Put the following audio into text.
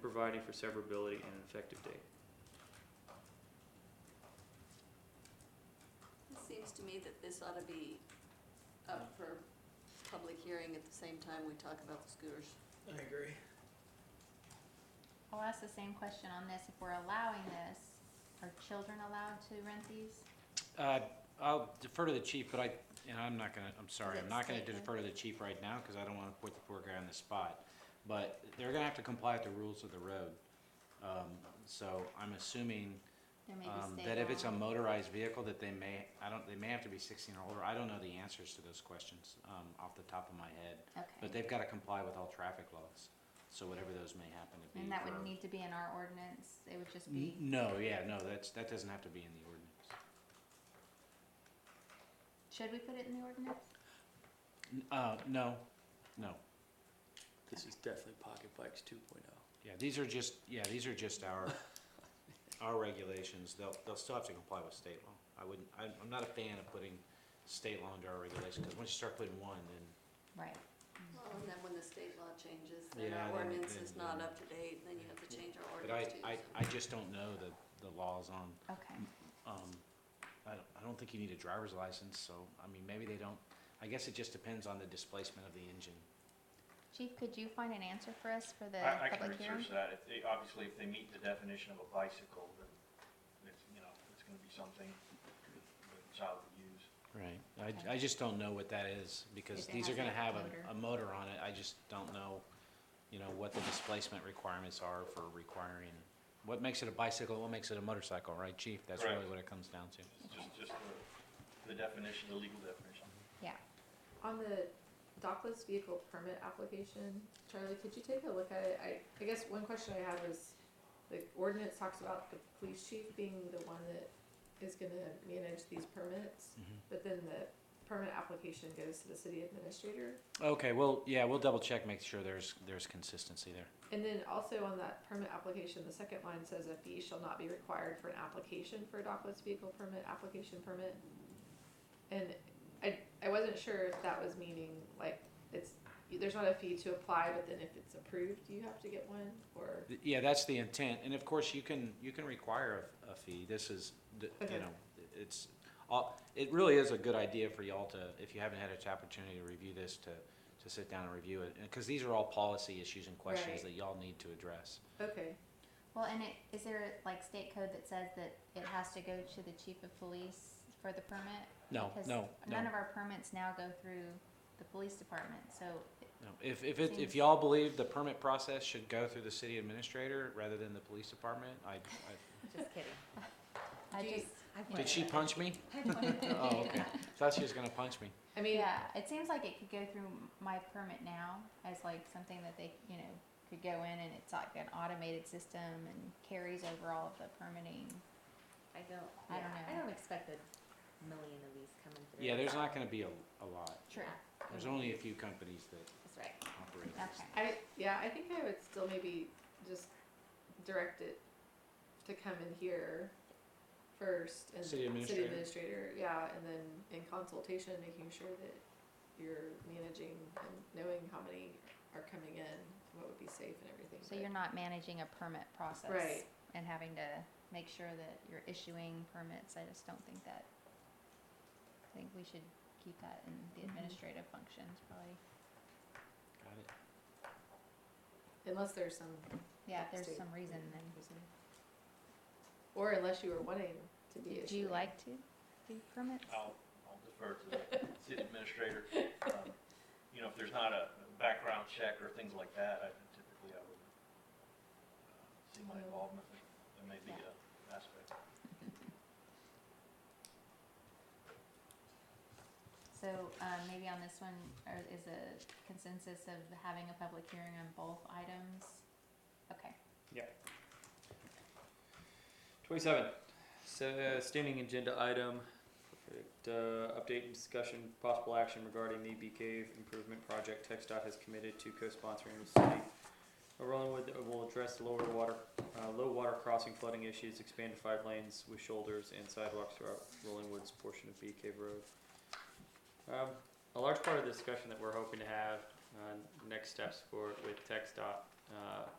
providing for severability and an effective date. It seems to me that this ought to be up for public hearing at the same time we talk about the scooters. I agree. I'll ask the same question on this, if we're allowing this, are children allowed to rent these? Uh, I'll defer to the chief, but I, and I'm not gonna, I'm sorry, Is it I'm not gonna statement? defer to the chief right now, because I don't wanna put the poor guy on the spot. But they're gonna have to comply with the rules of the road. Um, so I'm assuming, There may um, be state that if it's a law. motorized vehicle, that they may, I don't, they may have to be sixteen or older. I don't know the answers to those questions, um, off the top of my head. Okay, But they've gotta comply with all traffic laws, so whatever those may happen to be. and that for- would need to be in our ordinance, it would just N- be No, yeah, no, that's, that doesn't have to be in the ordinance. Mm-hmm. Should we put it in the ordinance? N- Uh, no, no. This is definitely pocket bikes two point oh. Yeah, these are just, yeah, these are just our, our regulations, they'll, they'll still have to comply with state law. I wouldn't, I'm, I'm not a fan of putting state law into our regulations, because once you start putting one, then, Right. Well, and then when the state law changes, then Yeah, our then- ordinance then- is not then- up to date, then you have to change our but I, ordinance too. I, so- I just don't know the, the laws on, Okay, um, I don't, I don't think you need a driver's license, so, I mean, maybe they don't, I guess it just depends on the displacement of the engine. chief, could you find an answer for us for the I, I can public hearing? research that, if they, obviously, if they meet the definition of a bicycle, then it's, you know, it's gonna be something that a child would use. Right, I, I just don't know what that is, If because it these are has gonna a have motor. a, a motor on it, I just don't know, you know, what the displacement requirements are for requiring, what makes it a bicycle, what makes it a motorcycle, right, chief? That's really Correct. what it comes down to. It's just, just the, the definition, the legal definition. Yeah, On the dockless vehicle permit application, Charlie, could you take a look at it? I, I guess one question I have is, the ordinance talks about the police chief being the one that is gonna manage these permits, but then the permit application goes to the city administrator. Okay, well, yeah, we'll double check, make sure there's, there's consistency there. And then also on that permit application, the second line says a fee shall not be required for an application for a dockless vehicle permit, application permit. And I, I wasn't sure if that was meaning like it's, there's not a fee to apply, but then if it's approved, you have to get one or? Th- Yeah, that's the intent, and of course, you can, you can require a, a fee, this is, th- you Okay. know, it's, all- it really is a good idea for y'all to, if you haven't had an opportunity to review this, to, to sit down and review it, because these are all policy issues and questions Right. that y'all need to address. Okay, well, and it, is there like state code that says that it has to go to the chief of police for the permit? No, Because no, None no. of our permits now go through the police department, so You know, If, if it, Seems- if y'all believe the permit process should go through the city administrator rather than the police department, I, I, Just kidding. I Do you- just. you did she know. punch me? Oh, okay, thought she was gonna punch me. I mean, Yeah, it seems like it could go through m- my permit now as like something that they, you know, could go in and it's like an automated system and carries over all of the permitting. I don't, yeah, I don't know. I don't expect a million of these coming through. Yeah, there's not gonna be a, a lot, True. there's only a few companies that That's right. operate this. Okay, I, yeah, I think I would still maybe just direct it to come in here first and City administrator. administrator, yeah, and then in consultation, making sure that you're managing and knowing how many are coming in, and what would be safe and everything. so you're not managing a permit process. Right. And having to make sure that you're issuing permits, I just don't think that, I think we should keep that in the Mm-hmm. administrative functions probably. Got it. But Unless there's some. Yeah, if there's state some reason then. reason. Or unless you were wanting to be Do you issuing. like to do permits? I'll, I'll defer to the city administrator. Um, You know, if there's not a background check or things like that, I typically, I would uh, see my involvement, there may be a aspect. So, um, maybe on this one, or is a consensus of having a public hearing on both items? Okay, Twenty-seven, so, uh, standing agenda item, perfect, uh, update and discussion, possible action regarding the Bee Cave Improvement Project. TechStop has committed to co-sponsoring with city. Uh, Rollingwood will address the lower water, uh, low water crossing flooding issues, expand to five lanes with shoulders and sidewalks throughout Rollingwood's portion of Bee Cave Road. Um, a large part of the discussion that we're hoping to have, uh, next steps for, with TechStop, uh,